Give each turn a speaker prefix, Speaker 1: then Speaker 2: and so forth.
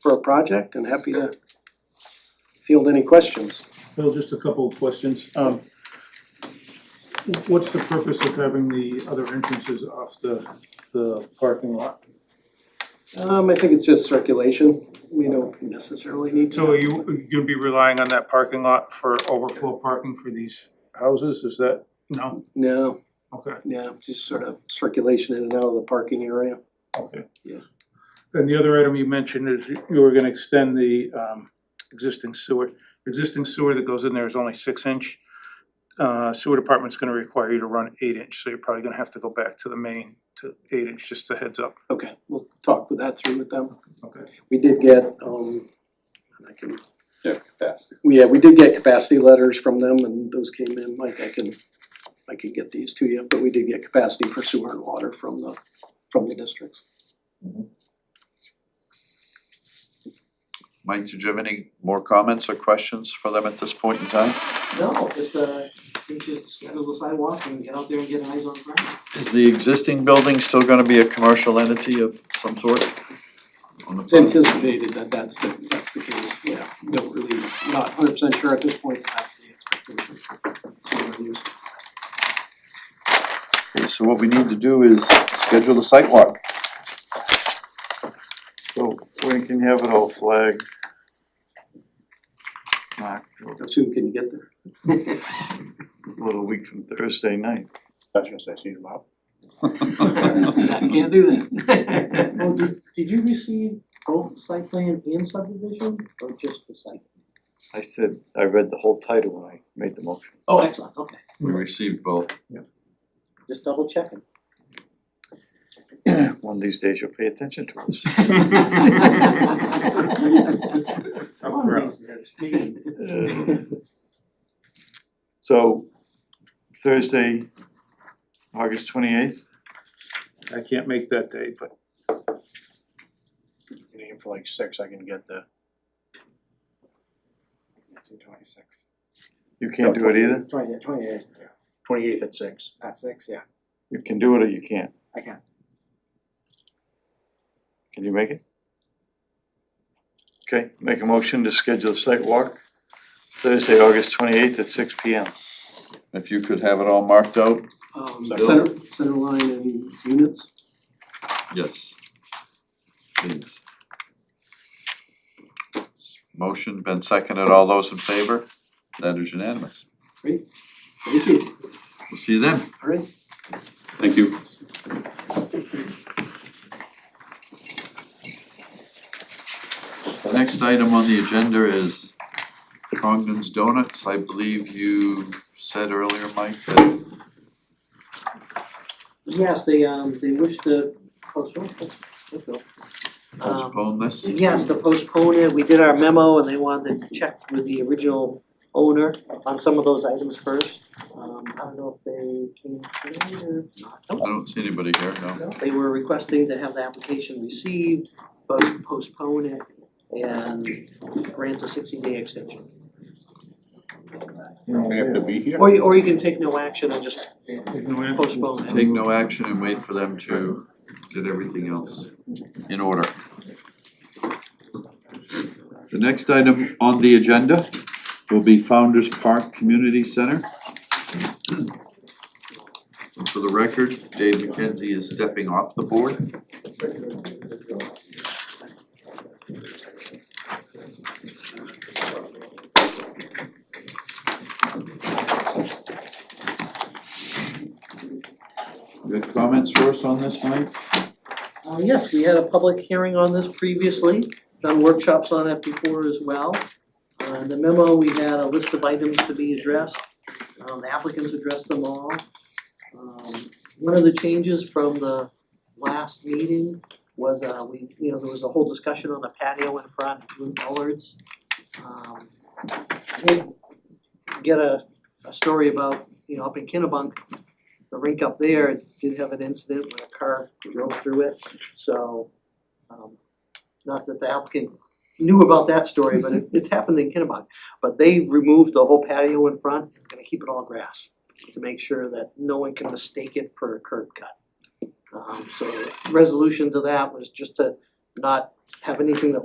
Speaker 1: for a project and happy to field any questions.
Speaker 2: Bill, just a couple of questions. Um, what's the purpose of having the other entrances off the, the parking lot?
Speaker 1: Um, I think it's just circulation, we don't necessarily need to.
Speaker 2: So are you, you will be relying on that parking lot for overflow parking for these houses, is that, no?
Speaker 1: No,
Speaker 2: Okay,
Speaker 1: yeah, just sort of circulation in and out of the parking area.
Speaker 2: okay.
Speaker 1: Yeah.
Speaker 2: And the other item you mentioned is you- you were gonna extend the, um, existing sewer. Existing sewer that goes in there is only six inch. Uh, sewer department's gonna require you to run eight inch, so you're probably gonna have to go back to the main to eight inch, just a heads up.
Speaker 1: Okay, we'll talk with that through with them.
Speaker 2: Okay.
Speaker 1: We did get, um, I can,
Speaker 3: Yeah, capacity.
Speaker 1: yeah, we did get capacity letters from them and those came in, Mike, I can, I can get these to you, but we did get capacity for sewer and water from the, from the districts.
Speaker 3: Mike, did you have any more comments or questions for them at this point in time?
Speaker 4: No, just uh, we should schedule the sidewalk and get out there and get eyes on the ground.
Speaker 3: Is the existing building still gonna be a commercial entity of some sort? On the
Speaker 1: It's
Speaker 3: front?
Speaker 1: anticipated that that's the, that's the case, yeah, don't really, not hundred percent sure at this point, but that's the expectation. Sewer use.
Speaker 3: Okay, So what we need to do is schedule a site walk.
Speaker 5: So when can you have it all flagged? Mark, a
Speaker 1: How soon can you get there?
Speaker 5: little week from Thursday night.
Speaker 4: Can't do that. Well, did did you receive both site plan and subdivision or just the site?
Speaker 5: I said, I read the whole title when I made the motion.
Speaker 4: Oh, excellent, okay,
Speaker 3: We received both.
Speaker 4: just double checking.
Speaker 5: One of these days you'll pay attention to us. So Thursday, August twenty eighth,
Speaker 2: I can't make that day, but
Speaker 6: can aim for like six, I can get the. Two twenty-six.
Speaker 5: you can't do it either?
Speaker 6: Twenty, yeah, twenty-eight. Twenty-eighth at six. At six, yeah.
Speaker 5: You can do it or you can't?
Speaker 6: I can.
Speaker 5: Can you make it? Okay, make a motion to schedule a site walk Thursday, August twenty eighth at six P M.
Speaker 3: If you could have it all marked out?
Speaker 1: Um,
Speaker 3: Second.
Speaker 1: center, center line and units,
Speaker 3: Yes. Please. Motion been seconded, all those in favor? That is unanimous.
Speaker 1: thank you,
Speaker 3: We'll see you then.
Speaker 1: all right.
Speaker 3: Thank you. The next item on the agenda is Congdon's Donuts. I believe you said earlier, Mike, that
Speaker 4: Yes, they um, they wish to postpone, let's, let's go. Um,
Speaker 3: postpone this.
Speaker 4: Yes, to postpone it, we did our memo and they wanted to check with the original owner on some of those items first. Um, I don't know if they came today or not,
Speaker 3: I don't see anybody here, no.
Speaker 4: No, They were requesting to have the application received, but postpone it and grant a sixty day extension.
Speaker 7: We have to be here.
Speaker 4: Or you, or you can take no action and just postpone it.
Speaker 3: Take no action and wait for them to get everything else in order. The next item on the agenda will be Founder's Park Community Center. And For the record, Dave McKenzie is stepping off the board. You have comments for us on this, Mike?
Speaker 4: Uh, yes, we had a public hearing on this previously, done workshops on it before as well. Uh, in the memo, we had a list of items to be addressed, um, the applicants addressed them all. Um, one of the changes from the last meeting was, uh, we, you know, there was a whole discussion on the patio in front, blue collards. Um, did Get a, a story about, you know, up in Kennebunk, the rink up there did have an incident when a car drove through it. So, um, not that the applicant knew about that story, but it, it's happened in Kennebunk. But they've removed the whole patio in front, it's gonna keep it all grass, to make sure that no one can mistake it for a curb cut. Um, so, resolution to that was just to not have anything that